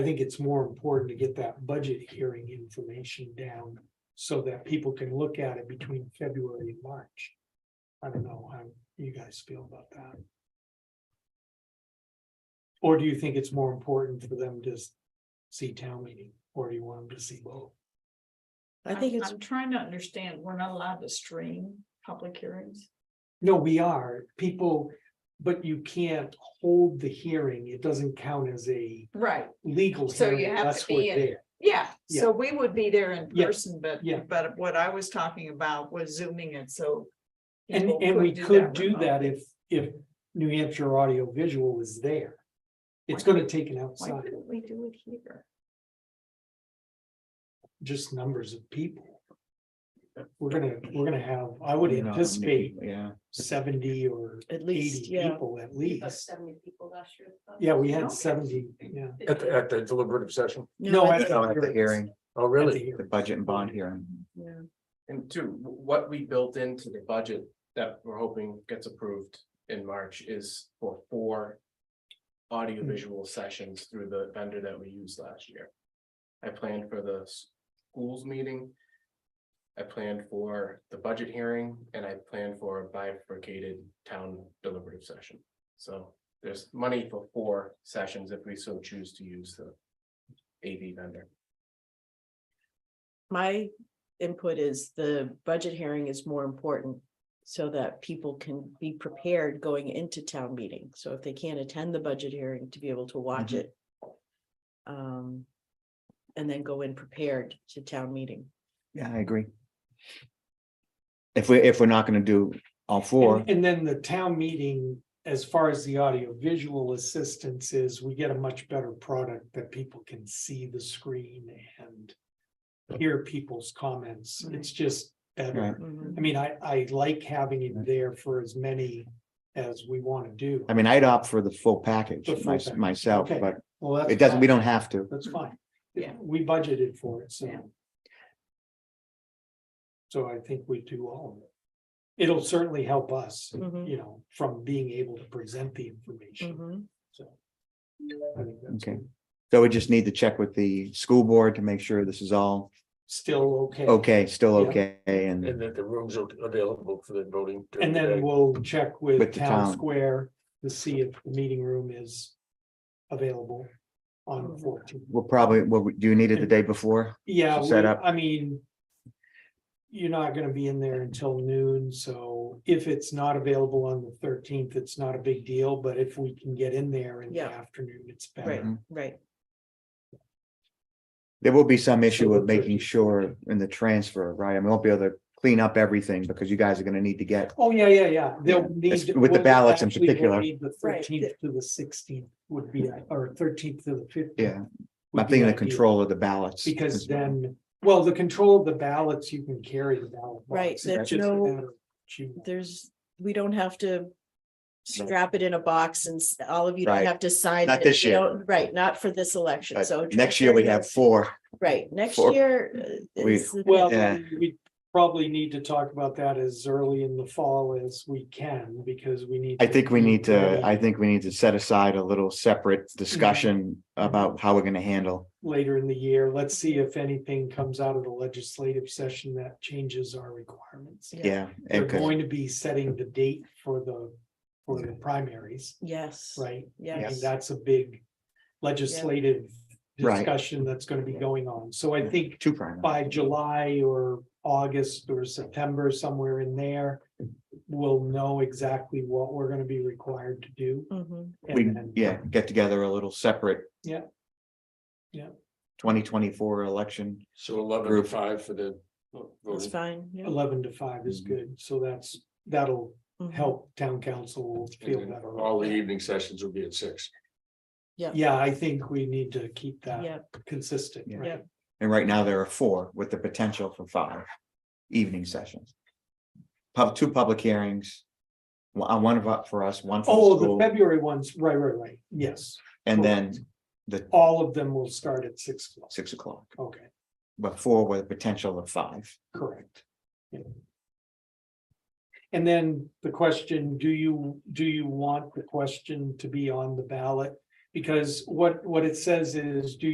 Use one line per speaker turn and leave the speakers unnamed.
I think it's more important to get that budget hearing information down so that people can look at it between February and March. I don't know how you guys feel about that. Or do you think it's more important for them to s- see town meeting, or do you want them to see both?
I
I'm-
think it's,
I'm trying to understand, we're not allowed to stream public hearings.
No, we are, people, but you can't hold the hearing, it doesn't count as a
Right,
legal
So you
hearing,
have to
that's
be
what
in-
they're,
yeah,
Yeah.
so we would be there in
Yeah,
person, but,
yeah.
but what I was talking about was zooming it, so.
and,
people
and we
do
could do
remotely.
that if, if New Hampshire audio visual is there. It's gonna take an
Why
outside,
couldn't we do it here?
just numbers of people. We're gonna, we're gonna have, I would anticipate
Yeah.
seventy or
at
eighty
least, yeah,
people at least.
Seventy people last year.
Yeah, we
Okay.
had seventy, yeah.
At, the- at the deliberative session.
no, I think,
Oh, at the hearing,
Oh,
At the
really?
hearing.
the budget and bond hearing.
yeah.
And two, wh- what we built into the budget that we're hoping gets approved in March is for four. Audio visual sessions through the vendor that we used last year. I planned for the s- schools meeting. I planned for the budget hearing and I planned for a bifurcated town deliberative session. So there's money for four sessions if we so choose to use the AV vendor.
my input is the budget hearing is more important. So that people can be prepared going into town meeting, so if they can't attend the budget hearing to be able to watch
Mhm.
it. Um, and then go in prepared to town meeting.
Yeah, I agree. If we, if we're not gonna do all four,
And, and then the town meeting, as far as the audio visual assistance is, we get a much better product that people can see the screen and. Hear people's comments, it's just
Right.
better,
Mm-hmm.
Mm-hmm.
I mean, I, I like having it there for as many as we wanna do.
I mean, I'd opt for the full package
The full
my-
package,
myself,
okay.
but
Well, that's
it doesn't, we
fine.
don't have to.
That's fine.
Yeah.
We budgeted for it, so.
Yeah.
So I think we do all of it. It'll certainly help us,
Mhm,
you know, from being able to present the information.
mhm.
So. I think that's
Okay. So we just need to check with the school board to make sure this is all
Still okay.
okay, still
Yeah.
okay, and
And that the rooms are available for the voting. during
And
the day.
then we'll check with
With the
town
town.
square to see if the meeting room is available on
Mm.
the fourteenth.
we'll probably, what, we- do you need it the day before?
Yeah,
to
we-
set up.
I mean. You're not gonna be in there until noon, so if it's not available on the thirteenth, it's not a big deal, but if we can get in there in the
Yeah.
afternoon, it's
Right,
better.
right,
There will be some issue
So
with
the
making
13th.
sure in the transfer, right? I mean, we won't be able to clean up everything because you guys are gonna need to get,
Oh, yeah, yeah, yeah, they'll need.
It's- with the
we'll
ballots in
actually will
particular.
need The
Right.
thirteenth to the sixteenth would be, or thirteenth to the fifteenth.
yeah, I'm thinking the control of the ballots.
Because
as well.
then, well, the control of the ballots, you can carry the ballot. box.
Right,
It's
there's
just a
no-
matter of choosing.
there's, we don't have to. Strap it in a box and s- all of you don't
Right.
have to sign.
Not
it.
this
You
year.
don't- Right, not for this election,
But
so.
Next year we have four.
Right, next
four-
year. uh,
we-
is the-
Well,
Yeah.
we- we probably need to talk about that as early in the fall as we can, because we need.
I think we need to, I
ready
think we need to set aside a little
Mm-hmm.
separate discussion about how we're gonna handle.
Later in the year, let's see if anything comes out of the legislative session that changes our requirements.
Yeah.
Yeah.
They're
and 'cause-
going to be setting the date for the, for the primaries,
Yes,
right? I mean,
yes,
that's a big legislative
Right.
discussion that's gonna be going on. So I think
Two primary.
by July or August or September, somewhere in there, we'll know exactly what we're gonna be required to do.
Mhm.
and
We,
then-
yeah, get together a little separate.
Yeah. Yeah.
Twenty twenty-four election.
So eleven to
Group.
five for the.
that's
voting.
fine. yeah.
Eleven to five is
Mhm.
good, so that's, that'll
Mhm.
help town council
And
feel
then
better.
All the e- evening sessions will be at six.
Yeah, I think we need to keep that
Yep,
consistent,
Yeah.
right?
And right now there are four with the potential for five evening sessions. Pub, two public hearings. One, one of up for us, one for
Oh,
the
the
school,
February ones, right, right, right, yes,
and then the
all of them will start at six o'clock,
six o'clock,
okay,
but four with a potential of five.
correct. Yeah. And then the question, do you, do you want the question to be on the ballot? Because what, what it says is, do